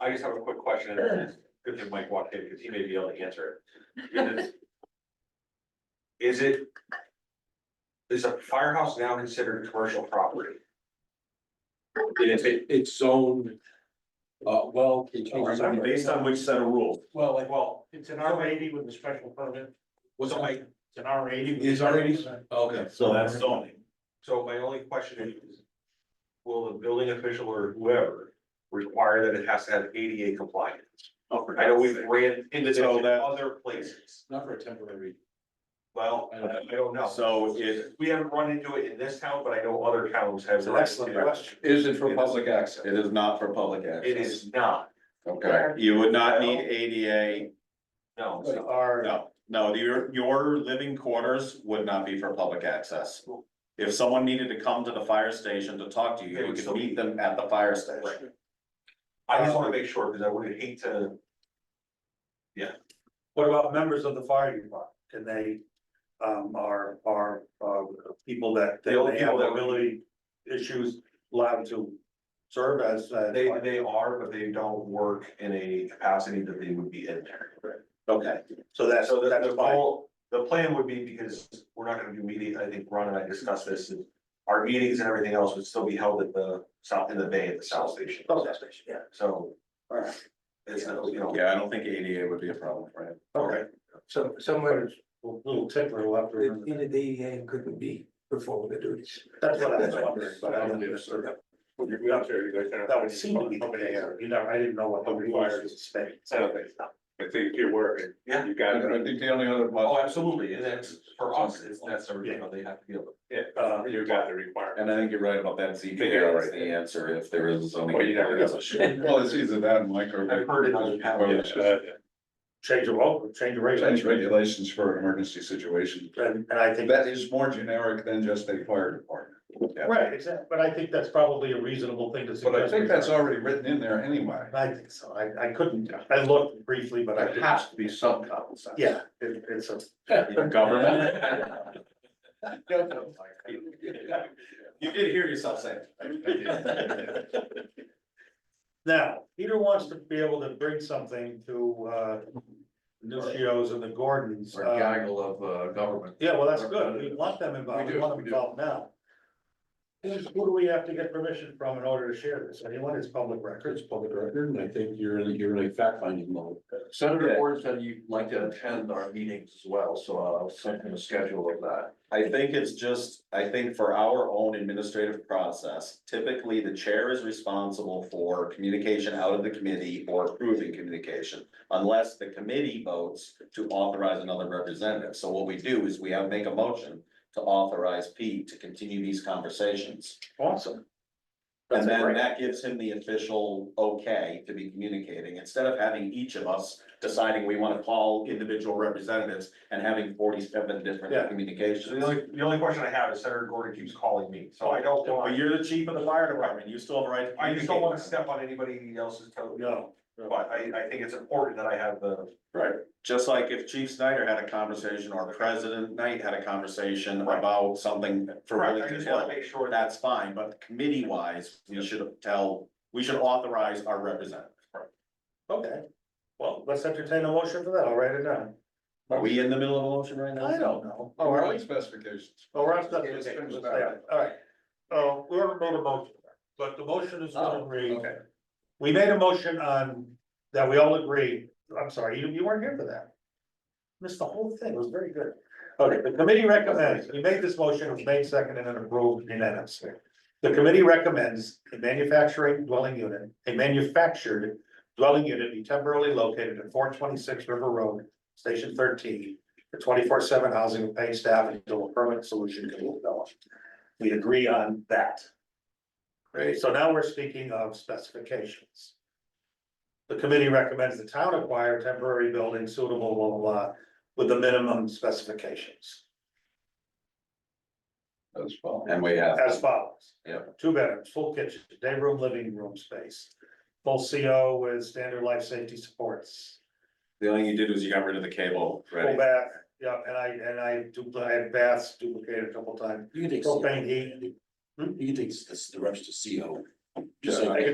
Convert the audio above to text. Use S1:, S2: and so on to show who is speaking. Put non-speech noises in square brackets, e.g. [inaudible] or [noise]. S1: I just have a quick question, and it's good that Mike walked in, because he may be able to answer it. Is it? Is a firehouse now considered commercial property?
S2: It's, it's zoned, uh, well.
S3: Oh,
S1: Oh,
S3: Based on which set of rules?
S2: Well, like,
S1: Well,
S4: It's an R eighty with a special permit.
S2: was it like,
S4: It's an R eighty.
S2: is already, okay,
S3: So that's zoning.
S1: so my only question is. Will the building official or whoever require that it has to have ADA compliance? I know we've ran into this in
S3: So that-
S1: other places,
S2: not for a temporary,
S1: well, I don't know.
S3: So it-
S1: We haven't run into it in this town, but I know other towns have.
S2: It's an excellent
S1: run into it.
S2: question.
S5: Is it for public access?
S3: It is not for public access.
S1: It is not,
S5: Okay,
S3: You would not need ADA,
S1: no, it's
S2: but
S1: not.
S2: are,
S3: no, no, your, your living quarters would not be for public access. If someone needed to come to the fire station to talk to you, you could meet them at the fire station.
S1: I just wanna make sure, because I would hate to,
S4: What about members of the fire department? Can they, um, are, are, uh, people that,
S1: The only
S4: they have
S1: people that would-
S4: ability issues allowed to serve as, uh,
S1: they, they are, but they don't work in a capacity that they would be in there.
S3: Okay,
S4: so that's,
S1: So the,
S4: that's
S1: the
S4: fine.
S1: goal, the plan would be, because we're not gonna do meeting, I think Ron and I discussed this, and our meetings and everything else would still be held at the south, in the bay at the south station,
S4: Oh, that's nice, yeah.
S1: so.
S4: Alright.
S1: It's, not, you know,
S3: yeah, I don't think ADA would be a problem for him.
S4: Okay.
S6: So somewhere
S4: Little tickler left.
S6: it needed DEA and couldn't be performing the duties.
S4: That's what I was wondering, but I don't. That would seem to be the case, you know, I didn't know what the requirements is.
S5: I think you're working.
S1: Yeah.
S5: You got it. I think the only other.
S1: oh, absolutely, and that's, for us, it's, that's, the, you know, they have to be able to.
S4: Uh,
S5: You got the requirement.
S3: And I think you're right about that
S5: Figure
S3: ZBA
S5: out
S3: is
S5: right
S3: the answer if there is zoning.
S5: Well, you never know. [laughs] Well, it's either that, Mike, or.
S1: I've heard it on the
S5: Or it's, uh,
S4: change of, law, change
S5: Change
S4: of regulation.
S5: regulations for emergency situations.
S4: And, and I think.
S5: That is more generic than just a fire department.
S4: Right, exactly, but I think that's probably a reasonable thing to
S5: But
S4: suggest.
S5: I think that's already written in there anyway.
S4: I think so, I, I couldn't, I looked briefly, but I
S5: But it
S4: didn't,
S5: has to be some common sense.
S4: yeah, it, it's a.
S3: Government.
S5: [laughs]
S1: You did hear yourself say.
S4: Now, Peter wants to be able to bring something to, uh, Nucio's and the Gordons.
S2: or
S4: uh,
S2: gaggle of, uh, government.
S4: Yeah, well, that's good, we want them involved,
S2: We
S4: we
S2: do,
S4: want
S2: we
S4: them
S2: do.
S4: involved now. Who's- Who do we have to get permission from in order to share this, anyone is public records,
S2: It's public record, and I think you're in, you're in a fact finding mode. Senator Warren said you'd like to attend our meetings as well, so I'll send him a schedule of that.
S3: I think it's just, I think for our own administrative process, typically the chair is responsible for communication out of the committee or approving communication. Unless the committee votes to authorize another representative. So what we do is we have, make a motion to authorize Pete to continue these conversations.
S4: awesome.
S3: And then that gives him the official okay to be communicating, instead of having each of us deciding we wanna call individual representatives and having forty-seven
S4: Yeah.
S3: different
S1: So
S3: communications.
S1: the only, the only question I have is Senator Gordon keeps calling me, so I don't
S3: But
S1: want,
S3: you're the chief of the fire department, you still have a right. to
S1: I just don't wanna
S3: communicate.
S1: step on anybody else's toe.
S4: No.
S1: But I, I think it's important that I have the,
S3: Right, just like if Chief Snyder had a conversation or President Knight had a conversation
S1: Right.
S3: about something for
S1: correct, I
S3: Willington
S1: just wanna
S3: Hill.
S1: make sure that,
S3: That's fine, but committee wise, we should tell, we should authorize our representative.
S4: Okay, well, let's entertain a motion for that, I'll write it down.
S3: Are we in the middle of a motion right now?
S4: I don't know.
S5: Oh, our specifications.
S4: Oh, we're not done.
S5: Okay, let's finish that.
S4: All right, so we haven't made a motion, but the motion is gonna
S5: Oh,
S4: read. We made a motion on, that we all agree, I'm sorry, you, you weren't here for that. Missed the whole thing, it was very good. Okay, the committee recommends, we made this motion, it was made second and then approved unanimously. The committee recommends a manufacturing dwelling unit, a manufactured dwelling unit be temporarily located at four twenty-six River Road, Station thirteen. For twenty-four seven housing and paid staff until a permanent solution can be developed. We agree on that.
S3: Great.
S4: So now we're speaking of specifications. The committee recommends the town acquire temporary building suitable, blah, blah, blah, with the minimum specifications
S5: That's fine.
S3: And we have.
S4: as follows.
S3: Yeah.
S4: Two bedrooms, full kitchen, day room, living room space, full CO with standard life safety supports.
S3: The only thing you did was you got rid of the cable,
S4: Full
S3: right?
S4: bath, yeah, and I, and I dupli, I had baths duplicated a couple times,
S2: You can take,
S4: propane heat.
S2: you can take the rest to CO.
S5: Just
S2: Just
S5: like-
S2: like